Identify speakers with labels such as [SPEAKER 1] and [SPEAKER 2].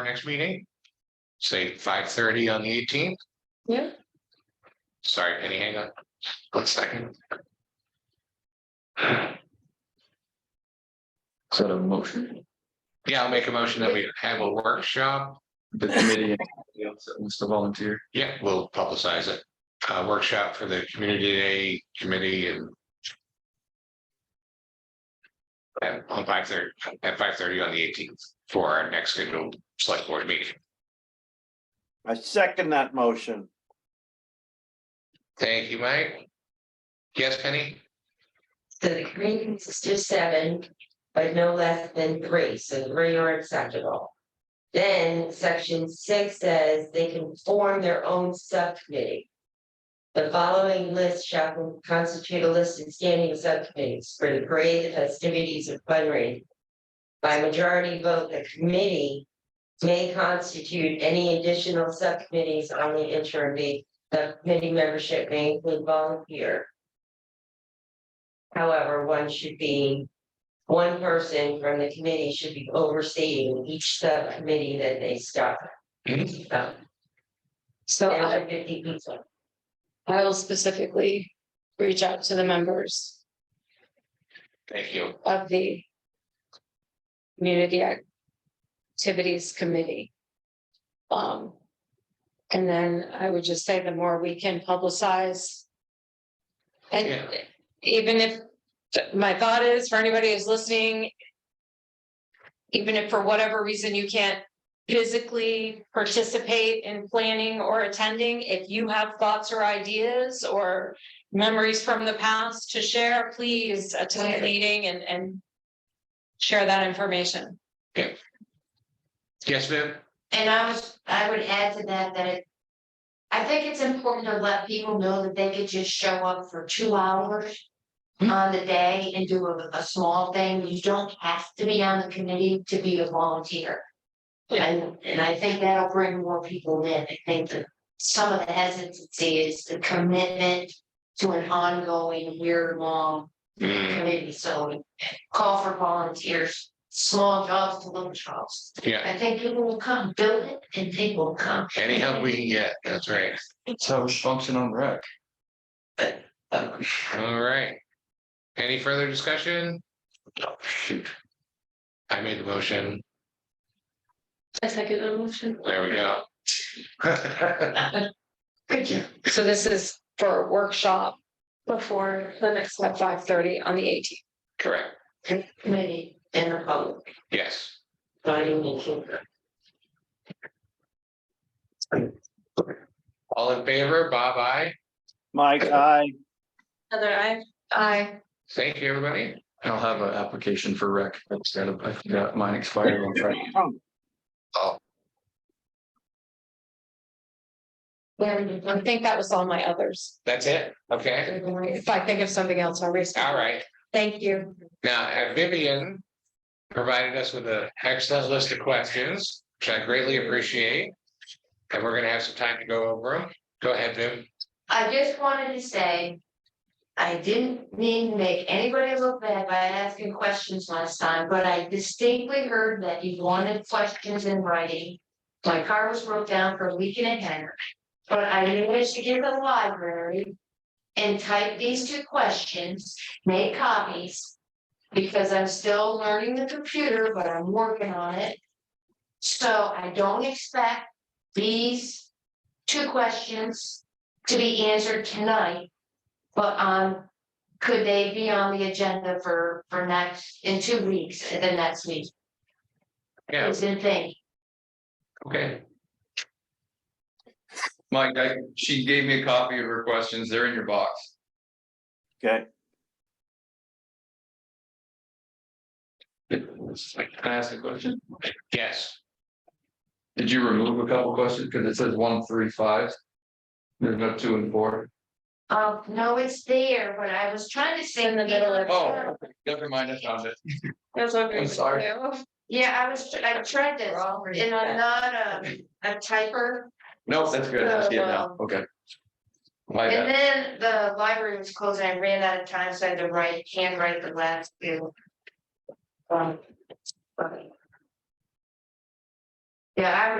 [SPEAKER 1] our next meeting. Say five thirty on the eighteenth.
[SPEAKER 2] Yeah.
[SPEAKER 1] Sorry, Penny, hang on. One second.
[SPEAKER 3] Sort of motion,
[SPEAKER 1] Yeah, I'll make a motion that we have a workshop.
[SPEAKER 3] the committee and anybody else that wants to volunteer.
[SPEAKER 1] Yeah, we'll publicize it. Uh, workshop for the community day committee and. At on five thirty, at five thirty on the eighteenth for our next scheduled select board meeting.
[SPEAKER 4] I second that motion.
[SPEAKER 1] Thank you, Mike. Yes, Penny?
[SPEAKER 2] So the committee consists of seven, but no less than three, so three are acceptable. Then section six says they can form their own subcommittee. The following list shall constitute a list of standing subcommittees for the parade, the festivities, and fundraising. By majority vote, the committee may constitute any additional subcommittees on the interim date. The committee membership may include volunteer. However, one should be, one person from the committee should be overseeing each subcommittee that they start. So,
[SPEAKER 5] So
[SPEAKER 2] There
[SPEAKER 5] I,
[SPEAKER 2] are fifty people.
[SPEAKER 5] I will specifically reach out to the members
[SPEAKER 1] Thank you.
[SPEAKER 5] of the community activities committee. Um, and then I would just say the more we can publicize. And
[SPEAKER 1] Yeah.
[SPEAKER 5] even if, my thought is for anybody who's listening. Even if for whatever reason you can't physically participate in planning or attending, if you have thoughts or ideas or. Memories from the past to share, please attend the meeting and, and. Share that information.
[SPEAKER 1] Yes, Viv?
[SPEAKER 2] And I was, I would add to that, that it. I think it's important to let people know that they could just show up for two hours. On the day and do a, a small thing, you don't have to be on the committee to be a volunteer. And, and I think that'll bring more people in, I think that some of the hesitancy is the commitment. To an ongoing year-long
[SPEAKER 1] Mm,
[SPEAKER 2] committee, so call for volunteers, small jobs to little jobs.
[SPEAKER 1] Yeah,
[SPEAKER 2] I think people will come, build it and people will come.
[SPEAKER 1] any help we can get, that's right.
[SPEAKER 3] That's how it's function on rec.
[SPEAKER 1] All right. Any further discussion? Oh, shoot. I made the motion.
[SPEAKER 5] second emotion.
[SPEAKER 1] There we go.
[SPEAKER 5] So this is for a workshop before the next one, five thirty on the eighteenth.
[SPEAKER 1] Correct.
[SPEAKER 2] Committee and the public,
[SPEAKER 1] Yes.
[SPEAKER 2] dining and children.
[SPEAKER 1] All in favor, Bob, I.
[SPEAKER 4] Mike, I,
[SPEAKER 5] Heather, I. I.
[SPEAKER 1] Thank you, everybody.
[SPEAKER 3] I'll have an application for rec. That's got, I forgot mine expired on Friday.
[SPEAKER 5] I think that was all my others.
[SPEAKER 1] That's it. Okay.
[SPEAKER 5] If I think of something else, I'll reach.
[SPEAKER 1] All right.
[SPEAKER 5] Thank you.
[SPEAKER 1] Now, uh, Vivian provided us with an excellent list of questions, which I greatly appreciate. And we're gonna have some time to go over them. Go ahead, Viv.
[SPEAKER 2] I just wanted to say. I didn't mean to make anybody look bad by asking questions last time, but I distinctly heard that you wanted questions in writing. My car was broke down for a week and a half, but I managed to get to the library. And type these two questions, make copies. Because I'm still learning the computer, but I'm working on it. So I don't expect these two questions to be answered tonight. But um, could they be on the agenda for for next, in two weeks, the next week,
[SPEAKER 1] Yeah,
[SPEAKER 2] is the thing.
[SPEAKER 1] okay.
[SPEAKER 3] Mike, I, she gave me a copy of her questions. They're in your box.
[SPEAKER 4] okay,
[SPEAKER 3] Can I ask a question?
[SPEAKER 1] Yes.
[SPEAKER 3] Did you remove a couple questions? Because it says one, three, five. There's no two and four.
[SPEAKER 2] Um, no, it's there, but I was trying to say.
[SPEAKER 5] In the middle of-
[SPEAKER 3] Oh, never mind, I found it.
[SPEAKER 5] That's
[SPEAKER 3] Oh. I'm sorry.
[SPEAKER 2] Yeah, I was, I tried to, and I'm not a a typer,
[SPEAKER 3] No, that's good. I see it now. Okay. My
[SPEAKER 2] and
[SPEAKER 3] bad.
[SPEAKER 2] then the library was closed, and I ran out of time, so I had to write, handwrite the last two. Um. but- Yeah, I would